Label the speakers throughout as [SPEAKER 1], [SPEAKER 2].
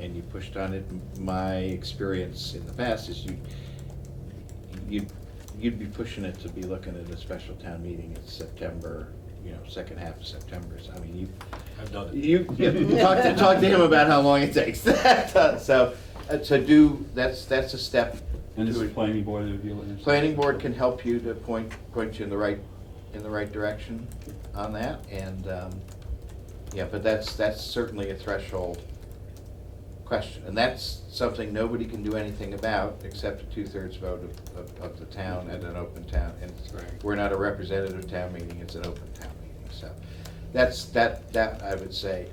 [SPEAKER 1] and you pushed on it. My experience in the past is you, you, you'd be pushing it to be looking at a special town meeting in September, you know, second half of September. So I mean, you,
[SPEAKER 2] I've done it.
[SPEAKER 1] You, yeah, talk to, talk to him about how long it takes. So, uh, so do, that's, that's a step.
[SPEAKER 3] And this
[SPEAKER 1] to
[SPEAKER 3] is
[SPEAKER 1] it.
[SPEAKER 3] planning board review. and-
[SPEAKER 1] Planning board can help you to point, point you in the right, in the right direction on that, and, um, yeah, but that's, that's certainly a threshold question, and that's something nobody can do anything about, except a two-thirds vote of, of, of the town at an open town, and
[SPEAKER 2] Right.
[SPEAKER 1] we're not a representative town meeting, it's an open town meeting, so, that's, that, that, I would say,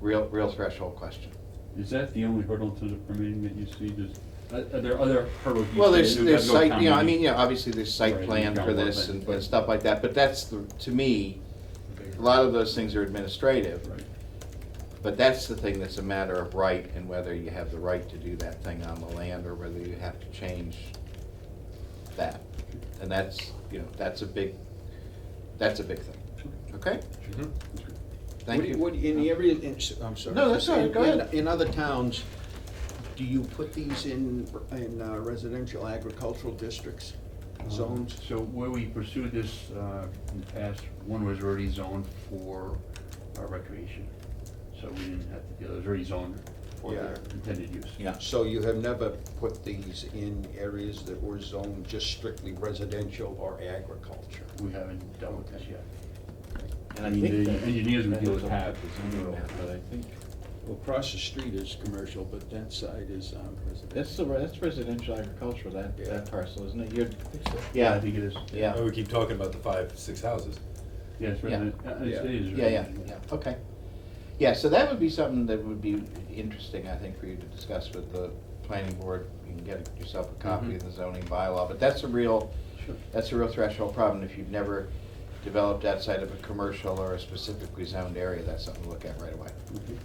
[SPEAKER 1] real, real threshold question.
[SPEAKER 3] Is that the only hurdle to the permitting that you see? Does, are are there other hurdles? you
[SPEAKER 1] Well,
[SPEAKER 3] see?
[SPEAKER 1] there's,
[SPEAKER 3] We've
[SPEAKER 1] there's
[SPEAKER 3] got to go
[SPEAKER 1] site, you know, I mean,
[SPEAKER 3] town meeting.
[SPEAKER 1] yeah, obviously there's site
[SPEAKER 3] Right,
[SPEAKER 1] plan
[SPEAKER 3] you've
[SPEAKER 1] for
[SPEAKER 3] got
[SPEAKER 1] this
[SPEAKER 3] one,
[SPEAKER 1] and
[SPEAKER 3] but-
[SPEAKER 1] and stuff like that, but that's, the to me, a lot of those things are administrative,
[SPEAKER 3] Right.
[SPEAKER 1] but that's the thing that's a matter of right and whether you have the right to do that thing on the land or whether you have to change that. And that's, you know, that's a big, that's a big thing, okay?
[SPEAKER 2] Mhm.
[SPEAKER 1] Thank
[SPEAKER 4] What do
[SPEAKER 1] you.
[SPEAKER 4] What, in every, in- s- I'm sorry.
[SPEAKER 1] No, that's all right. Go
[SPEAKER 4] In- in-
[SPEAKER 1] ahead.
[SPEAKER 4] In other towns, do you put these in, in uh, residential agricultural districts,
[SPEAKER 5] Uh-huh.
[SPEAKER 4] zones?
[SPEAKER 6] So where we pursued this uh, in the past, one was already zoned for uh, recreation. So we didn't have to, deal. it was already zoned for their
[SPEAKER 4] Yeah.
[SPEAKER 6] intended use.
[SPEAKER 1] Yeah.
[SPEAKER 4] So you have never put these in areas that were zoned just strictly residential or agriculture?
[SPEAKER 6] We haven't dealt with this yet.
[SPEAKER 1] And
[SPEAKER 3] I mean, the engineers we deal with have.
[SPEAKER 1] But I think,
[SPEAKER 5] Well, across the street is commercial, but that side is um,
[SPEAKER 1] that's
[SPEAKER 5] residential.
[SPEAKER 1] the, that's residential agriculture, that,
[SPEAKER 4] Yeah.
[SPEAKER 1] that parcel, isn't it? You're,
[SPEAKER 6] I
[SPEAKER 1] yeah,
[SPEAKER 6] think it is.
[SPEAKER 1] yeah.
[SPEAKER 2] Oh, We keep talking about the five, six houses.
[SPEAKER 3] Yes,
[SPEAKER 1] Yeah.
[SPEAKER 3] resident, uh, it's- it is.
[SPEAKER 1] Yeah, yeah,
[SPEAKER 3] residential.
[SPEAKER 1] yeah, okay. Yeah, so that would be something that would be interesting, I think, for you to discuss with the planning board. You can get yourself a copy of the zoning bylaw, but that's a real,
[SPEAKER 3] Sure.
[SPEAKER 1] that's a real threshold problem. If you've never developed outside of a commercial or a specifically zoned area, that's something to look at right away.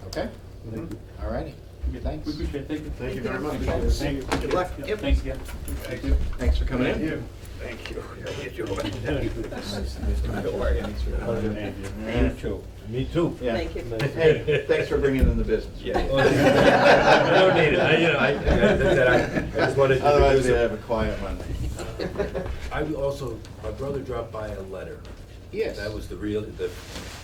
[SPEAKER 1] Okay?
[SPEAKER 3] Thank you.
[SPEAKER 1] All righty, Mm-hmm. thanks.
[SPEAKER 3] We appreciate it, thank you.
[SPEAKER 6] Thank you very much.
[SPEAKER 3] Thank you.
[SPEAKER 4] Good luck.
[SPEAKER 3] Yeah, Thanks again.
[SPEAKER 6] Thank you.
[SPEAKER 1] Thanks for coming in.
[SPEAKER 4] Thank you.
[SPEAKER 1] Yeah.
[SPEAKER 2] Me too.
[SPEAKER 1] Yeah.
[SPEAKER 7] Thank you.
[SPEAKER 1] Hey, thanks for bringing in the business. Yeah.
[SPEAKER 2] I don't need it. I, you know, I- I- I just wanted to
[SPEAKER 1] Otherwise,
[SPEAKER 2] reduce
[SPEAKER 1] we'd
[SPEAKER 2] it.
[SPEAKER 1] have a quiet Monday.
[SPEAKER 2] I will also, my brother dropped by a letter.
[SPEAKER 1] Yes.
[SPEAKER 2] That was the real, the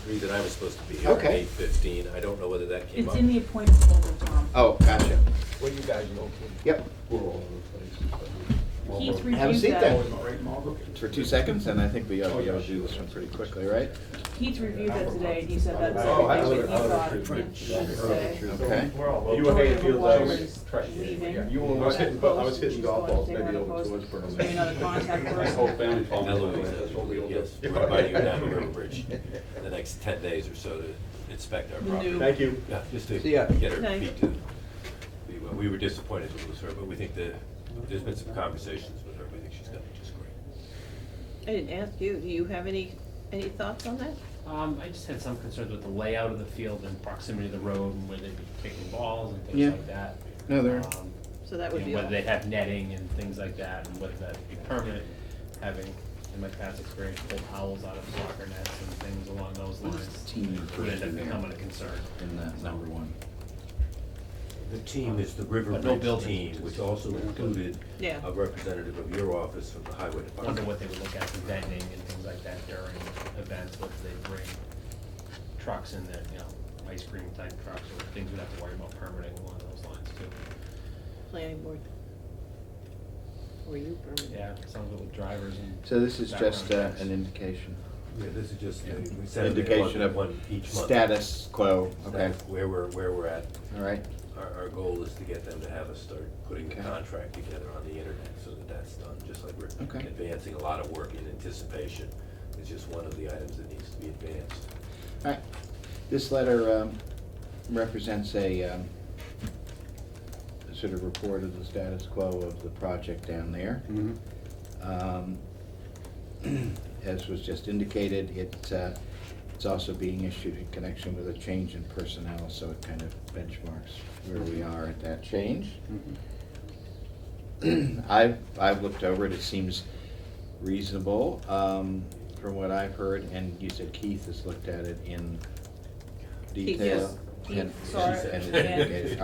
[SPEAKER 2] reason I was supposed to be here at
[SPEAKER 1] Okay.
[SPEAKER 2] eight fifteen. I don't know whether that came
[SPEAKER 8] It's
[SPEAKER 2] up.
[SPEAKER 8] in the appointment folder, Tom.
[SPEAKER 1] Oh, gotcha.
[SPEAKER 4] Where you guys located?
[SPEAKER 1] Yep.
[SPEAKER 6] We're all over
[SPEAKER 4] Oh.
[SPEAKER 6] the
[SPEAKER 8] He's
[SPEAKER 6] place.
[SPEAKER 1] Have a seat
[SPEAKER 8] reviewed
[SPEAKER 1] then.
[SPEAKER 8] that,
[SPEAKER 1] for two seconds, and I think we ought to be able to do this one pretty quickly, right?
[SPEAKER 8] he's reviewed that today, and he said that's
[SPEAKER 2] Oh, I would-
[SPEAKER 8] everything
[SPEAKER 2] I
[SPEAKER 8] that he
[SPEAKER 2] would-
[SPEAKER 8] thought it should say.
[SPEAKER 1] Okay.
[SPEAKER 8] You were hitting field You were hitting, I was hitting golf balls, maybe over towards Burnham. another contact
[SPEAKER 3] My whole
[SPEAKER 8] person.
[SPEAKER 3] family followed.
[SPEAKER 2] Eloise, yes, we're inviting you down to River Bridge
[SPEAKER 8] Mm-hmm.
[SPEAKER 2] in the next ten days or so to inspect our
[SPEAKER 8] The
[SPEAKER 2] property.
[SPEAKER 8] new- Thank
[SPEAKER 2] you. Yeah, just to
[SPEAKER 4] See ya.
[SPEAKER 2] get our
[SPEAKER 8] Nice.
[SPEAKER 2] feet to, we were- we were disappointed to lose her, but we think that, there's been some conversations with her, we think she's gonna be just great.
[SPEAKER 7] I didn't ask you, do you have any, any thoughts on that?
[SPEAKER 9] Um, I just had some concerns with the layout of the field and proximity to the road and where they'd be kicking balls and
[SPEAKER 1] Yeah.
[SPEAKER 9] things like that.
[SPEAKER 1] No, there-
[SPEAKER 9] Um,
[SPEAKER 7] So that
[SPEAKER 9] you
[SPEAKER 7] would
[SPEAKER 9] know,
[SPEAKER 7] be all.
[SPEAKER 9] Whether they have netting and things like that and whether that be permanent, having, in my past experience, pulled owls out of soccer nets and things along those lines.
[SPEAKER 1] team
[SPEAKER 9] Would end up becoming a concern.
[SPEAKER 1] in that number one.
[SPEAKER 2] The team is the River
[SPEAKER 9] But no
[SPEAKER 2] Bridge
[SPEAKER 9] buildings.
[SPEAKER 2] team, which also included
[SPEAKER 7] Yeah.
[SPEAKER 2] a representative of your office from the highway
[SPEAKER 9] I Wonder
[SPEAKER 2] department.
[SPEAKER 9] what they would look at for vending and things like that during events, whether they bring trucks in there, you know, ice cream type trucks or things we'd have to worry about permitting along those lines too.
[SPEAKER 7] Planning board. Were you permanent?
[SPEAKER 9] Yeah, some little drivers and.
[SPEAKER 1] So this is just uh,
[SPEAKER 9] background checks.
[SPEAKER 1] an indication.
[SPEAKER 2] Yeah, this is just,
[SPEAKER 9] Yeah.
[SPEAKER 2] we set up
[SPEAKER 1] Indication
[SPEAKER 2] one,
[SPEAKER 1] of
[SPEAKER 2] one each month.
[SPEAKER 1] Status quo, okay,
[SPEAKER 2] That's Where we're, where we're at.
[SPEAKER 1] all right.
[SPEAKER 2] Our, our goal is to get them to have us start putting the
[SPEAKER 1] Okay.
[SPEAKER 2] contract together on the internet so that that's done, just like we're
[SPEAKER 1] Okay.
[SPEAKER 2] advancing a lot of work in anticipation. It's just one of the items that needs to be advanced.
[SPEAKER 1] All right. This letter um, represents a um, a sort of report of the status quo of the project down there.
[SPEAKER 3] Mhm.
[SPEAKER 1] Um, As was just indicated, it, uh, it's also being issued in connection with a change in personnel, so it kind of benchmarks where we are at that change.
[SPEAKER 8] Mm-hmm.
[SPEAKER 3] Mhm.
[SPEAKER 1] I've, I've looked over it, it seems reasonable um, from what I've heard, and you said Keith has looked at it in
[SPEAKER 7] Keith,
[SPEAKER 1] detail.
[SPEAKER 7] yes.
[SPEAKER 1] and-
[SPEAKER 7] Keith saw
[SPEAKER 1] and-
[SPEAKER 7] it,
[SPEAKER 1] and
[SPEAKER 2] and-
[SPEAKER 1] indicated.